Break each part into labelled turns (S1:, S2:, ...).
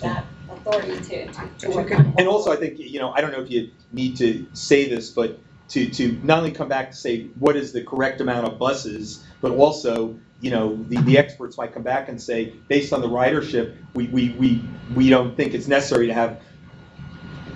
S1: that authority to, to, to work on it.
S2: And also, I think, you know, I don't know if you need to say this, but to, to not only come back to say what is the correct amount of buses, but also, you know, the, the experts might come back and say, based on the ridership, we, we, we, we don't think it's necessary to have,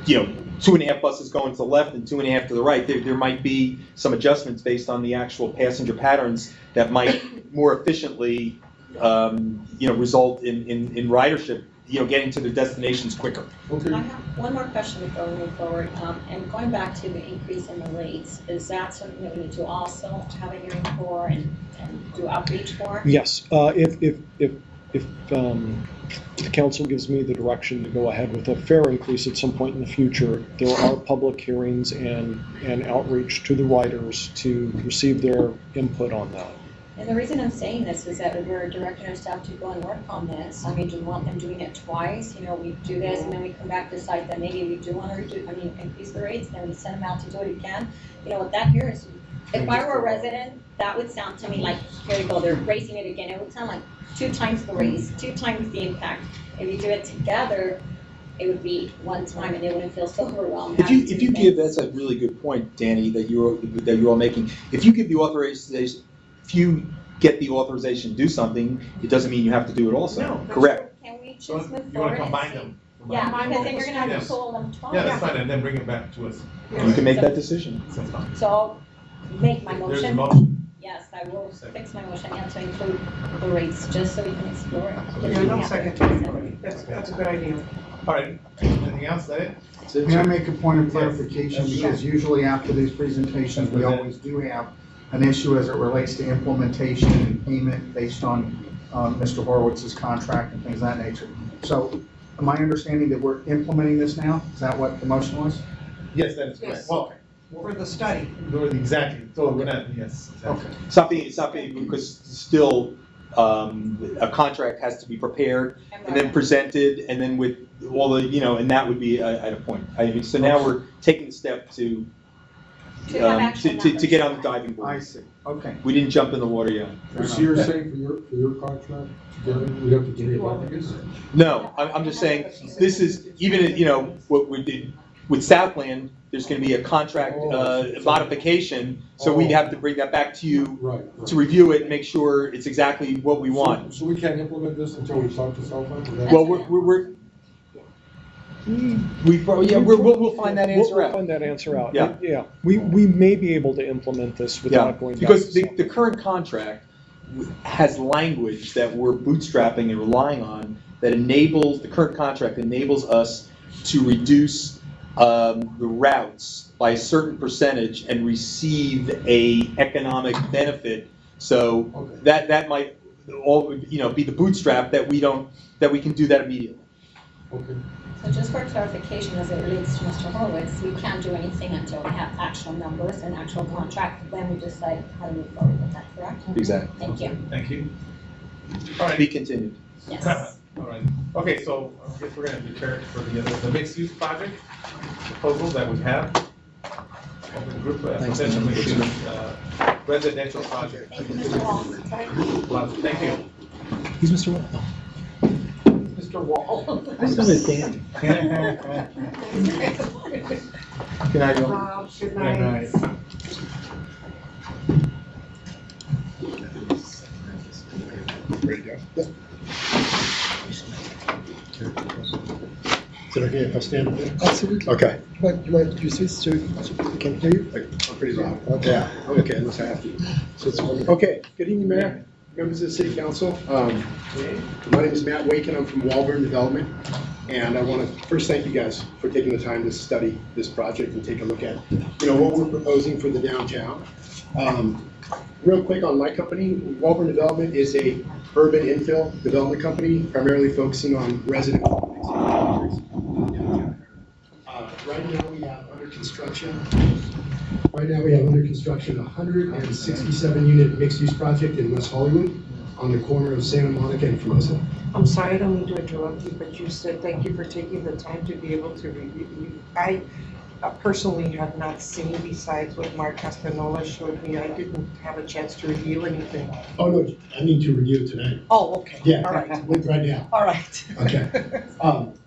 S2: you know, two and a half buses going to the left and two and a half to the right. There, there might be some adjustments based on the actual passenger patterns that might more efficiently, um, you know, result in, in, in ridership, you know, getting to their destinations quicker.
S1: I have one more question before we move forward, um, and going back to the increase in the rates, is that something that we need to also have a hearing for and, and do outreach for?
S3: Yes, uh, if, if, if, if um, the council gives me the direction to go ahead with a fare increase at some point in the future, there are public hearings and, and outreach to the riders to receive their input on that.
S1: And the reason I'm saying this is that we're directing our staff to go and work on this, I mean, do we want them doing it twice, you know, we do this, and then we come back, decide that maybe we do wanna redo, I mean, increase the rates, then we send them out to do it again, you know, what that here is, if I were a resident, that would sound to me like, here we go, they're raising it again, it would sound like two times the raise, two times the impact, if you do it together, it would be one time, and they wouldn't feel so overwhelmed.
S2: If you,
S1: having to
S2: if
S1: do
S2: you give,
S1: things.
S2: that's a really good point, Danny, that you're, that you're all making. If you give the authorization, if you get the authorization to do something, it doesn't mean you have to do it also.
S4: No.
S2: Correct.
S1: Can we just
S4: So
S1: move
S4: you
S1: forward?
S4: wanna
S1: and
S4: combine
S1: see-
S4: them?
S1: Yeah,
S4: Combine
S1: because then
S4: them.
S1: you're gonna have to
S4: Yes.
S1: pull them twice.
S4: Yeah, that's fine, and then bring it back to us.
S2: You can make that decision.
S4: So it's fine.
S1: So I'll make my
S4: There's a
S1: motion,
S4: motion.
S1: yes, I will
S4: Second.
S1: fix my motion, and to include the rates, just so we can explore it.
S5: Yeah, no second. That's, that's a good idea.
S4: All right, anything else, that it?
S6: May I make a point of
S4: Yes.
S6: clarification,
S4: Yes.
S6: because usually after these presentations, we always do have an issue as it relates to implementation and payment based on um, Mr. Horowitz's contract and things of that nature. So am I understanding that we're implementing this now? Is that what the motion was?
S4: Yes, that is correct.
S5: Yes.
S4: Well,
S5: For the study.
S4: no, exactly, so we're not, yes, exactly.
S2: It's not being, it's not being, because still, um, a contract has to be prepared and then presented and then with all the, you know, and that would be at at a point. I mean, so now we're taking the step to,
S1: To have
S2: um,
S1: action
S2: to, to, to get on the
S1: numbers.
S2: diving
S6: I
S2: board.
S6: see, okay.
S2: We didn't jump in the water yet.
S6: Fair enough.
S7: So you're saying for your, for your contract, we have to get it back again?
S2: No, I'm, I'm just saying, this is, even, you know, what we did with Southland, there's gonna be a contract, uh, modification, so we'd have to bring that back to you
S7: Right.
S2: to review it, and make sure it's exactly what we want.
S7: So we can't implement this until we talk to Southland? Is that-
S2: Well, we're, we're, we're, we, prob- yeah, we're, we'll, we'll find that
S3: We'll-
S2: answer
S3: We'll
S2: out.
S3: find that answer out.
S2: Yeah.
S3: Yeah, we, we may be able to implement this
S2: Yeah,
S3: without going back.
S2: because
S3: to
S2: the, the current contract has language that we're bootstrapping and relying on that enables, the current contract enables us to reduce um, the routes by a certain percentage and receive a economic benefit. So
S7: Okay.
S2: that, that might all, you know, be the bootstrap that we don't, that we can do that immediately.
S7: Okay.
S1: So just for clarification, as it relates to Mr. Horowitz, we can't do anything until we have actual numbers and actual contract, then we decide how to move forward with that, correct?
S2: Exactly.
S1: Thank you,
S4: Thank you. All
S2: Be
S4: right,
S2: continued.
S1: yes.
S4: all right, okay, so I guess we're gonna deter for the other, the mixed use project proposal that we have. Open group, uh, potential mixed use, uh, residential project.
S1: Thank you, Mr. Wong.
S4: Lots- Thank you.
S3: He's Mr. Wall.
S4: Mr. Wall.
S2: Can I go?
S5: Uh, Good
S4: night.
S5: night.
S8: Is it okay if I stand up there? Absolutely. Okay. But you might use this so we can hear you? I'm pretty loud. Okay, okay, unless I have to. So it's- Okay, good evening, Mayor, members of the City Council. Um, My name is Matt Waken, I'm from Walburn Development, and I want to first thank you guys for taking the time to study this project and take a look at, you know, what we're proposing for the downtown. Um, Real quick on my company, Walburn Development is a urban infill development company, primarily focusing on resident properties. Uh, Right now, we have under construction, right now, we have under construction a hundred and sixty-seven unit mixed-use project in West Hollywood on the corner of Santa Monica and Formosa.
S5: I'm sorry, I don't mean to interrupt you, but you said thank you for taking the time to be able to review. I uh, personally have not seen besides what Mark Castanola showed me. I didn't have a chance to review anything.
S8: Oh, no, I need to review it tonight.
S5: Oh, okay.
S8: Yeah.
S5: All right,
S8: Like right now,
S5: all right.
S8: okay. Um,